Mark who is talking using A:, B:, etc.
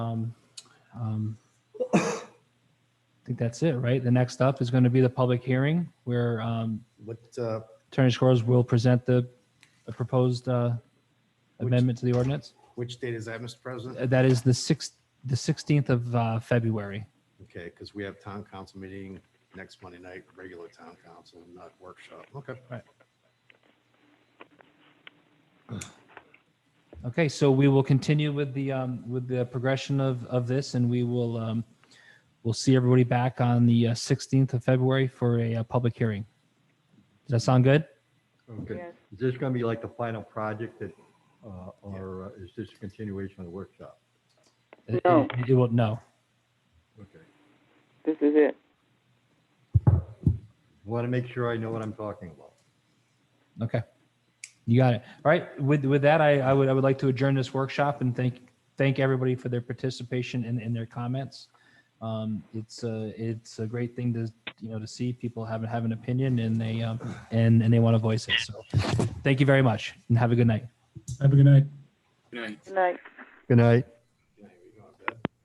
A: um, um, I think that's it, right? The next up is going to be the public hearing where um,
B: What, uh,
A: Attorney Scores will present the the proposed uh,
B: Which-
A: amendment to the ordinance.
B: which date is that, Mr. President?
A: Uh, That is the sixth, the 16th of uh, February.
B: Okay, because we have town council meeting next Monday night, regular town council, not workshop. Okay.
A: Okay, so we will continue with the, um, with the progression of, of this and we will, um, we'll see everybody back on the uh, 16th of February for a, uh public hearing. Does that sound good?
C: Okay,
D: Yes.
C: is this gonna be like the final project that, uh, or uh, is this a continuation of the workshop?
A: It-
D: No.
A: It it will, no.
C: Okay.
D: This is it.
C: Want to make sure I know what I'm talking about.
A: Okay. You got it. All right. With, with that, I, I would, I would like to adjourn this workshop and thank, thank everybody for their participation and, and their comments. Um, it's a, it's a great thing to, you know, to see people have, have an opinion and they, um, and, and they want to voice it. So thank you very much and have a good night.
E: Have a good night.
D: Good night.
C: Good night.